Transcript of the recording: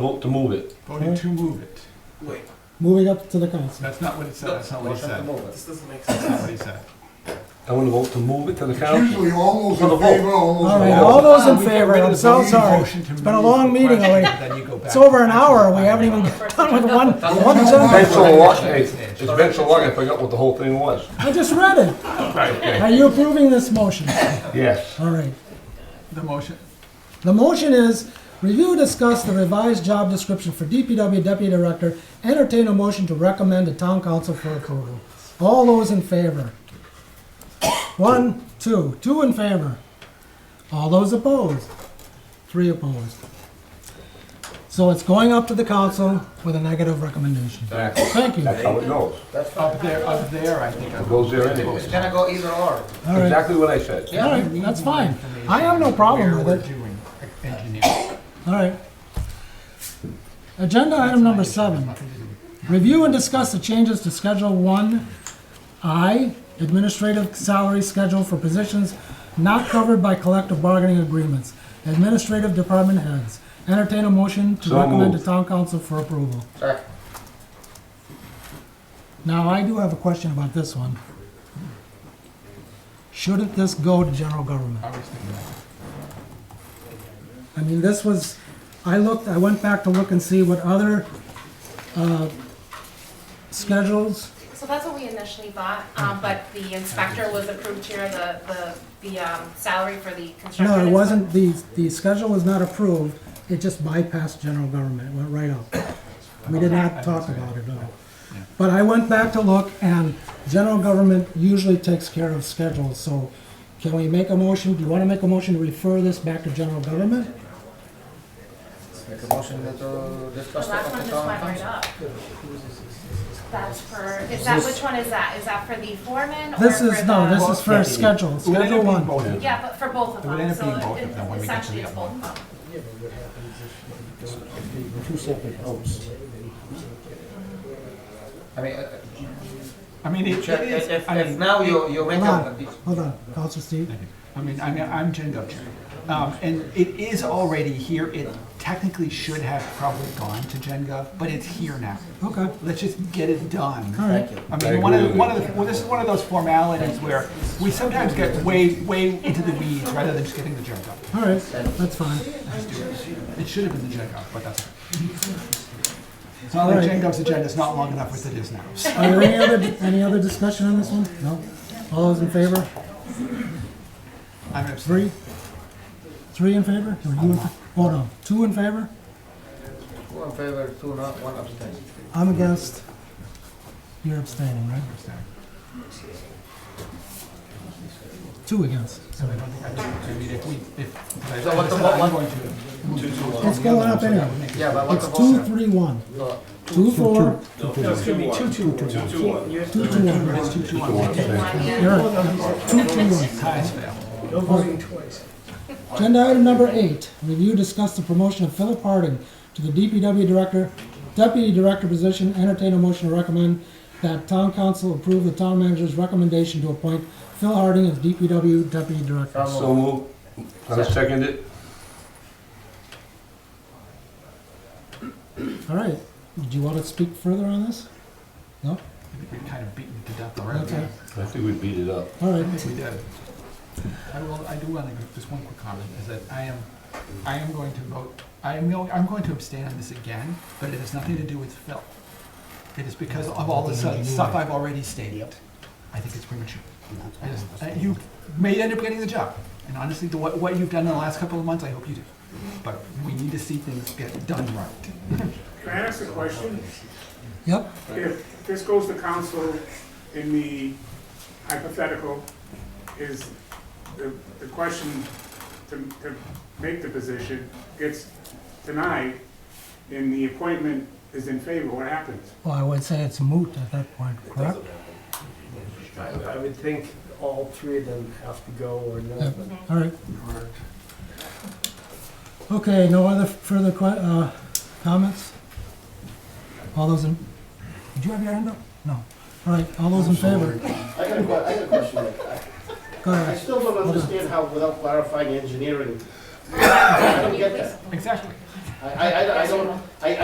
Vote to move it. Voting to move it. Wait, Moving up to the council. That's not what it said, No, that's not what he said. this doesn't make That's not what sense. he said. I want to vote to move it to the It's council. usually all those For the in vote. favor, all those All right, opposed. all those Ah, in we got favor, rid of I'm the so voting sorry. motion to It's been a move long the meeting question, already. then you go back It's to over an the actual hour, we haven't final even vote. done with one, That's- one Been sentence. so long, hey, it's been so long, I forgot what the whole thing was. I just read it. Right. Are you approving this motion? Yes. All right. The motion, The motion is review, discuss the revised job description for DPW Deputy Director, entertain a motion to recommend to town council for approval. All those in favor? One, two, two in favor. All those opposed? Three opposed. So it's going up to the council with a negative recommendation. That's Thank you. how it goes. up there, up there, I think. It goes there anyways. It's gonna go either or. All right. Exactly what I said. All right, that's fine. I have no problem with it. it. All right. Agenda item number seven. Review and discuss the changes to Schedule 1I, administrative salary schedule for positions not covered by collective bargaining agreements, administrative department heads. Entertain a motion to So recommend to moved. town council for approval. Sorry. Now, I do have a question about this one. Shouldn't this go to general government? I mean, this was, I looked, I went back to look and see what other, uh, schedules, So that's what we initially bought, um, but the inspector was approved here, the, the, the, um, salary for the construction. no, it is- wasn't, the, the schedule was not approved, it just bypassed general government, it went right up. We did not talk about it at all. But I went back to look, and general government usually takes care of schedules, so can we make a motion, do you wanna make a motion to refer this back to general government? Let's make a motion that, uh, The discuss it last one at the just went town right council. up. That's for, is that, which one is that? Is that for the foreman or for the? This is, no, this is for schedule, schedule one. Yeah, but for both of It would them, end up so being both of them when it- we get to essentially the it's other both one. of them. Two separate votes. I mean, uh, I mean, it it check, if, is, if- I if mean, now you, you make Hold a, on, hold on, Counselor Steve. I mean, I mean, I'm Jen Gupchak. Um, and it is already here, it technically should have probably gone to Gen Gov, but it's here now. Okay, Let's just get it done. all right. I I mean, one agree of, with one you. of the, well, this is one of those formalities where we sometimes get way, way into the weeds rather than just getting the junk up. All right, that's fine. It should have been the junk up, but that's. It's not like Jen Gov's agenda is not long enough with it is now. So Are there any other, any other discussion on this one? No? All those in favor? I'm abstaining. Three? Three in favor? Or you in fa- Oh, no, two in favor? two in favor, two not, one abstain. I'm against. You're abstaining, right? Two against. I don't think I do. I mean, if we, if, So I what the said I'm vote- going to move it to. It's going up anyway. Yeah, but what It's the two, vote? three, one. No, Two, four, two, two, one. It's two, two, one. You're right. Two, two, one. Ties fail. Agenda item number eight, review, discuss the promotion of Philip Harding to the DPW director, deputy director position, entertain a motion to recommend that town council approve the town manager's recommendation to appoint Phil Harding as DPW deputy director. so So moved. move. I second it. All right, do you want to speak further on this? No? I think We're kind of beaten to death already. I Okay. think we beat it up. All I right, think we did. I will, I do want to, just one quick comment, is that I am, I am going to vote, I am going, I'm going to abstain on this again, but it has nothing to do with Phil. It is because of all the sudden stuff I've already stated. I think it's premature. I just, I- you may end up getting the job, and honestly, the- what, what you've done in the last couple of months, I hope you do. But we need to see things get done right. Can I ask a question? yep, If this goes to council in the hypothetical, is the, the question to, to make the position gets denied and the appointment is in favor, what happens? well, I would say it's moot at that point, correct? I I would think all three of them have to go or Yeah. not. All right. Okay, no other further que, uh, comments? All those in, did you have your hand up? No. All right, all those in favor? I got a que- I got a question, Nick. I- Go I ahead. still don't understand how, without clarifying engineering, I don't get that. Exactly. I, I, I don't, I,